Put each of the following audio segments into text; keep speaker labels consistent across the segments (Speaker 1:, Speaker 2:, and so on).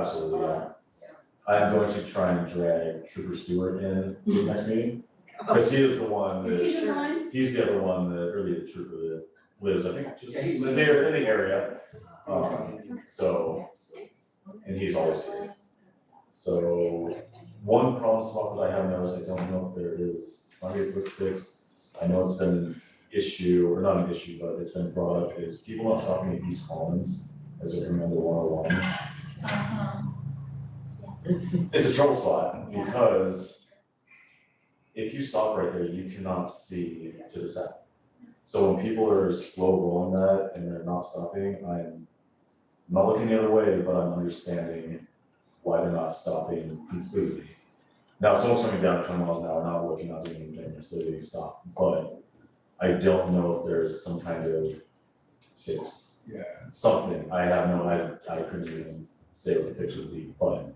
Speaker 1: absolutely, yeah. I'm going to try and drag Trooper Stewart in the next meeting, because he is the one
Speaker 2: Is
Speaker 1: that,
Speaker 2: he the one?
Speaker 1: he's the other one that, or the trooper that lives, I think, just
Speaker 3: Yeah, he
Speaker 1: in
Speaker 3: lives-
Speaker 1: the, in the area.
Speaker 3: Okay.
Speaker 1: Um, so, and he's always here. So, one problem spot that I have noticed, I don't know if there is, might be a quick fix. I know it's been an issue, or not an issue, but it's been brought up, is people not stopping at East Collins as they're coming on the one oh
Speaker 2: Uh-huh.
Speaker 1: one. It's a trouble spot,
Speaker 2: Yeah.
Speaker 1: because if you stop right there, you cannot see to the south. So when people are slow rolling that and they're not stopping, I'm not looking the other way, but I'm understanding why they're not stopping completely. Now, someone's coming down twenty miles an hour, not looking, not doing anything, they're still getting stopped, but I don't know if there's some kind of fix.
Speaker 3: Yeah.
Speaker 1: Something, I have no, I, I couldn't even say what the fix would be, but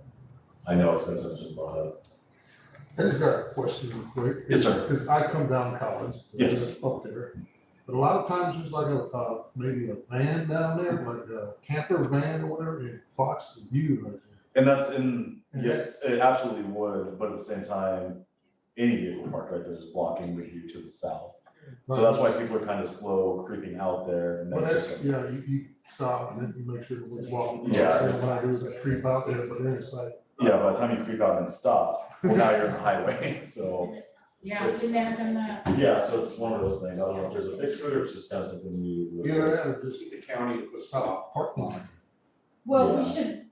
Speaker 1: I know it's been something brought up.
Speaker 4: I just got a question real quick.
Speaker 1: Yes, sir.
Speaker 4: Because I come down College.
Speaker 1: Yes.
Speaker 4: Up there, but a lot of times there's like a, uh, maybe a van down there, like a camper van or whatever, and it blocks the view right there.
Speaker 1: And that's in,
Speaker 4: And
Speaker 1: yes, it absolutely would, but at the same time, any vehicle parked right there is blocking the view to the south. So that's why people are kind of slow creeping out there and
Speaker 4: Well,
Speaker 1: then
Speaker 4: that's,
Speaker 1: just.
Speaker 4: yeah, you, you stop and then you make sure it was walking.
Speaker 1: Yeah,
Speaker 4: So
Speaker 1: it's-
Speaker 4: What I do is I creep out there, but then it's like,
Speaker 1: Yeah, by the time you creep out and stop, well, now you're on the highway, so,
Speaker 2: Yeah, we imagine that.
Speaker 1: yeah, so it's one of those things, I don't know if there's a fix for it, or it's just kind of something we. look
Speaker 4: get
Speaker 1: at.
Speaker 4: out or just
Speaker 3: The county was stopped.
Speaker 4: stop, park line.
Speaker 2: Well, we
Speaker 1: Yeah.
Speaker 2: should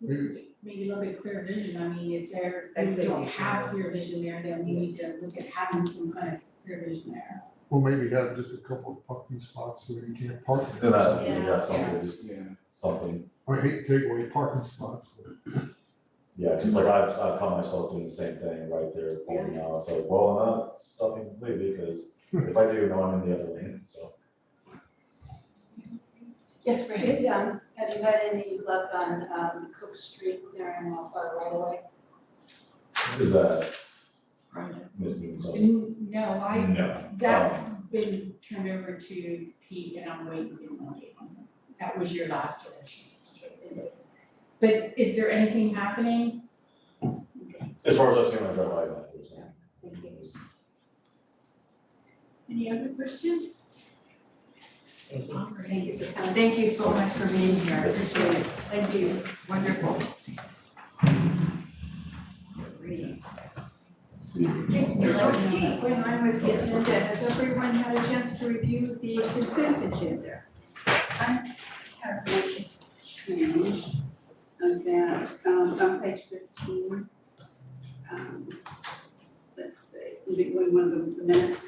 Speaker 4: Maybe-
Speaker 2: maybe look at clear vision, I mean, if there,
Speaker 5: That
Speaker 2: if
Speaker 5: could
Speaker 2: we
Speaker 5: be
Speaker 2: don't have
Speaker 5: true.
Speaker 2: clear vision there, then we need to look at having some kind of clear vision there.
Speaker 4: Well, maybe have just a couple of parking spots where you can't park.
Speaker 1: Then that,
Speaker 5: Yeah.
Speaker 1: yeah, something, just
Speaker 3: Yeah.
Speaker 1: something,
Speaker 4: I hate to take away parking spots, but
Speaker 1: yeah, cause like I've, I've caught myself doing the same thing right there, pulling out, it's like, well, I'm not stopping completely, because if I do, now I'm in the other lane, so.
Speaker 2: Yes, Fran?
Speaker 5: Maybe, um, have you had any luck on, um, Cook Street clearing off our right away?
Speaker 1: Is that Miss Moon's office?
Speaker 2: N- No, I,
Speaker 1: No.
Speaker 2: that's been turned over to Pete and I'm waiting to get an update on him. That was your last direction, Mr. Chair. But is there anything happening?
Speaker 1: As far as I've seen, I drive by that, there's no-
Speaker 5: Thank you.
Speaker 2: Any other questions?
Speaker 5: Thank you for coming.
Speaker 6: Thank you so much for being here, I
Speaker 1: Yes.
Speaker 6: appreciate it,
Speaker 5: Thank you.
Speaker 6: wonderful.
Speaker 5: There's no key.
Speaker 6: When I'm with the agenda, has everyone had a chance to review the consent agenda?
Speaker 5: I have one change of that, um, on page fifteen. Um, Let's see, maybe one one of the minutes,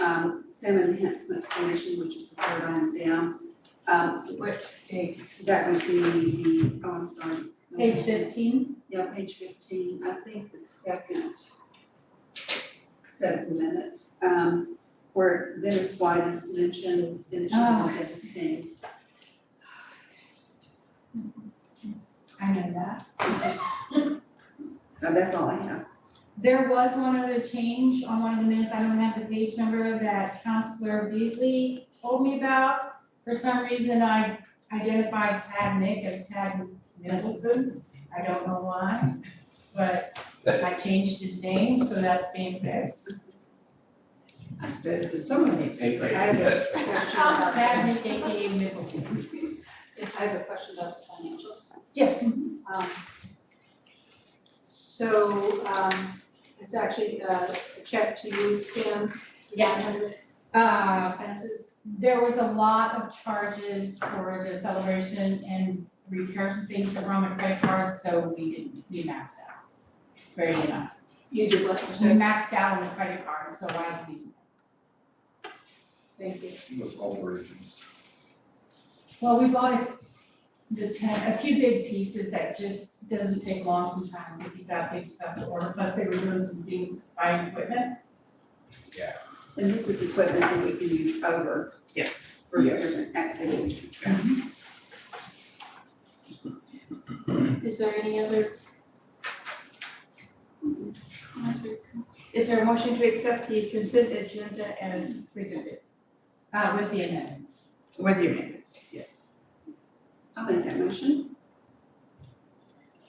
Speaker 5: um, salmon enhancement commission, which is the third item down. Um,
Speaker 6: What date?
Speaker 5: that would be the, oh, I'm sorry.
Speaker 2: Page fifteen,
Speaker 5: Yeah, page fifteen, I think the second set of minutes, um, where Dennis White is mentioned in
Speaker 2: Oh.
Speaker 5: chapter fifteen.
Speaker 2: I know that.
Speaker 5: Now, that's all I have.
Speaker 2: There was one other change on one of the minutes, I don't have the page number that Counselor Beasley told me about. For some reason, I identified Tad Nick as Tad Nicholson, I don't know why, but I changed his name, so that's being fixed.
Speaker 6: I suppose that someone needs to.
Speaker 3: April.
Speaker 5: I have a question about,
Speaker 2: Tad Nick, AKA Nicholson.
Speaker 5: I have a question about the financials.
Speaker 6: Yes,
Speaker 5: Um, So, um, it's actually uh, a check to you, Kim.
Speaker 2: Yes,
Speaker 5: for
Speaker 2: uh,
Speaker 5: Expenses.
Speaker 2: there was a lot of charges for the celebration and repairs and things that were on the credit card, so we didn't, we maxed out. Very enough.
Speaker 5: You did what,
Speaker 2: So
Speaker 5: percent?
Speaker 2: maxed out on the credit card, so I didn't.
Speaker 5: Thank you.
Speaker 3: With all versions.
Speaker 2: Well, we bought a- the ten, a few big pieces that just doesn't take long sometimes if you've got big stuff to order, plus they were doing some things with buying equipment.
Speaker 5: And this is equipment that we can use over.
Speaker 6: Yes.
Speaker 5: For
Speaker 3: Yes.
Speaker 5: different activities. Is there any other? Comments or-
Speaker 6: is there a motion to accept the consent agenda as presented?
Speaker 2: Uh, with the amendments.
Speaker 6: With your amendments, yes.
Speaker 5: I'll make that motion.